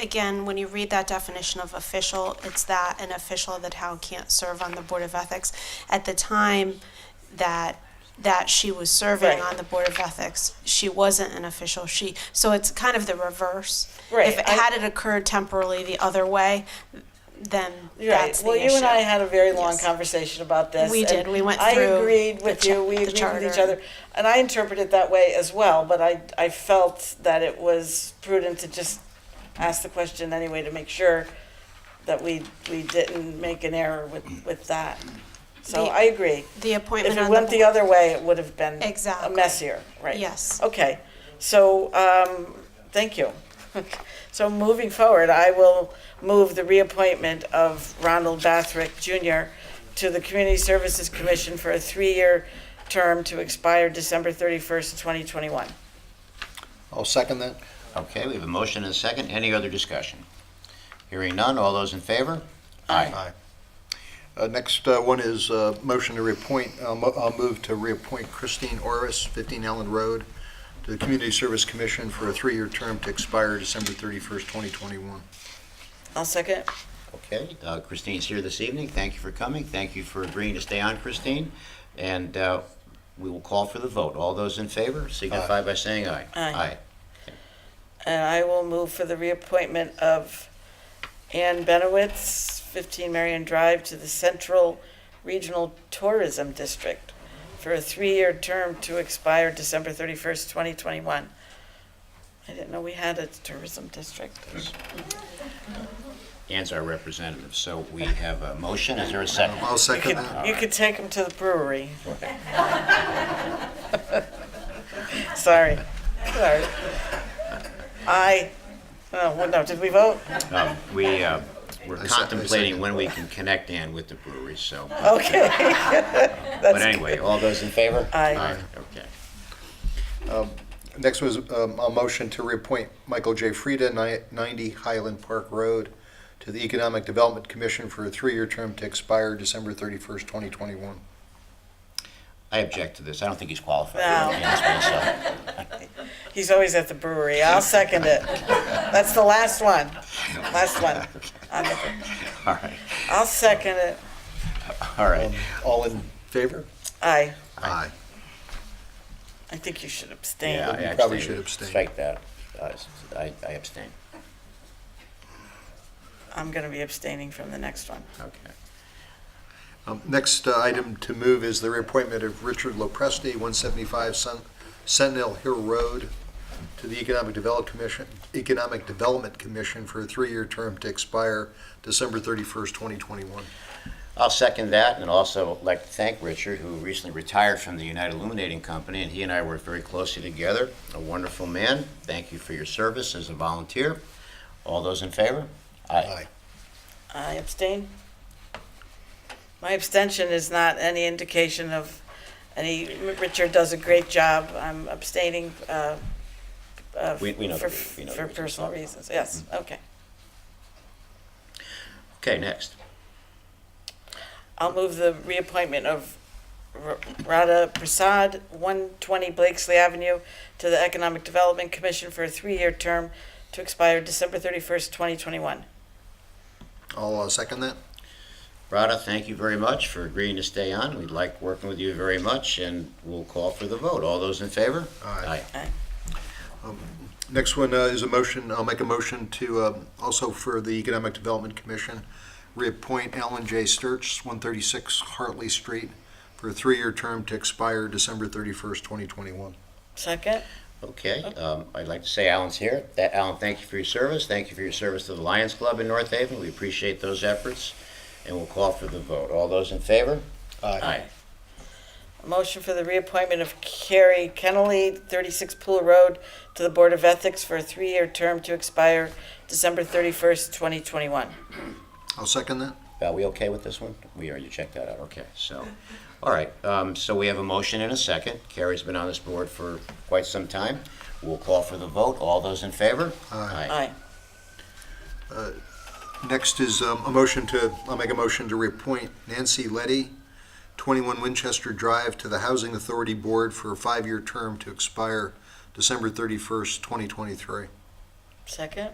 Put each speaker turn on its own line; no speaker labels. again, when you read that definition of official, it's that an official of the town can't serve on the Board of Ethics. At the time that, that she was serving
Right.
on the Board of Ethics, she wasn't an official, she, so it's kind of the reverse.
Right,
If, it-
I-
had it occurred temporarily the other way, then
Right.
that's the
Well, you and I
issue.
had a very long
Yes.
conversation about this.
We
and
did. We went
I
through
agreed
the
with
cha-
you. We
the
agreed with each
charter.
other, and I interpreted it that way as well. But I, I felt that it was prudent to just ask the question anyway to make sure that we we didn't make an error with with that. So
The-
I agree.
The
If
appointment
it
on the
went the
board,
other way, it would have been a
Exactly.
messier, right?
yes.
Okay, so, um, thank you. So moving forward, I will move the reappointment of Ronald Bathrick Jr. to the Community Services Commission for a three-year term to expire December thirty-first, twenty twenty-one.
I'll second that.
Okay, we have a motion and a second. Any other discussion? Hearing none, all those in favor?
Aye. Uh, Next uh, one is uh, motion to reappoint, I'll mo- I'll move to reappoint Christine Orris, 15 Ellen Road, to the Community Service Commission for a three-year term to expire December 31st, 2021.
I'll second.
Okay, uh, Christine's here this evening. Thank you for coming. Thank you for agreeing to stay on, Christine. And uh, we will call for the vote. All those in favor signify by saying aye.
Aye. And I will move for the reappointment of Ann Benowitz, 15 Marion Drive, to the Central Regional Tourism District for a three-year term to expire December 31st, 2021. I didn't know we had a tourism district.
Ann's our representative, so we have a motion. Is there a second?
I'll
You
second that.
could, you could take them to the brewery. Sorry. Sorry. I, oh, well, no, did we vote?
Um, We, uh, we're
I se- I
contemplating
second.
when we can connect Ann with the brewery, so.
Okay.
But anyway, all those in favor?
Aye.
Okay.
Next was um, a motion to reappoint Michael J. Frieda, ni- 90 Highland Park Road, to the Economic Development Commission for a three-year term to expire December 31st, 2021.
I object to this. I don't think he's qualified.
No.
Yes,
He's always at the brewery. I'll second it. That's the last one. Last one. I'll-
myself. All right,
I'll second it.
all right.
Um, All in favor?
Aye.
Aye.
I think you should abstain.
Yeah, I
You probably
abstain.
should abstain.
Strike that. Uh, I I abstain.
I'm going to be abstaining from the next one.
Okay.
Um, Next uh, item to move is the reappointment of Richard Lopresti, 175 Sen- Sentinel Hill Road, to the Economic Develop Commission, Economic Development Commission for a three-year term to expire December 31st, 2021.
I'll second that, and also like to thank Richard, who recently retired from the United Illuminating Company, and he and I worked very closely together. A wonderful man. Thank you for your service as a volunteer. All those in favor?
Aye.
I abstain. My abstention is not any indication of any, Richard does a great job. I'm abstaining uh, uh,
We- we know
for
the rea- we know the
for
reasons.
personal reasons. Yes,
Mm-hmm.
okay.
Okay, next.
I'll move the reappointment of R- Radha Prasad, 120 Blakesley Avenue, to the Economic Development Commission for a three-year term to expire December 31st, 2021.
I'll uh, second that.
Rada, thank you very much for agreeing to stay on. We like working with you very much, and we'll call for the vote. All those in favor?
Aye. Um,
Aye.
Next one uh, is a motion, I'll make a motion to, um, also for the Economic Development Commission, reappoint Alan J. Sturts, 136 Hartley Street, for a three-year term to expire December 31st, 2021.
Second?
Okay, um, I'd like to say Alan's here. That, Alan, thank you for your service. Thank you for your service to the Lions Club in North Haven. We appreciate those efforts, and we'll call for the vote. All those in favor? Aye.
A Motion for the reappointment of Carrie Kennelly, 36 Pool Road, to the Board of Ethics for a three-year term to expire December 31st, 2021.
I'll second that.
Val, we okay with this one? We are, you checked that out, okay, so, all right, um, so we have a motion and a second. Carrie's been on this board for quite some time. We'll call for the vote. All those in favor? Aye.
Aye.
Next is um, a motion to, I'll make a motion to reappoint Nancy Letty, 21 Winchester Drive, to the Housing Authority Board for a five-year term to expire December 31st, 2023.
Second?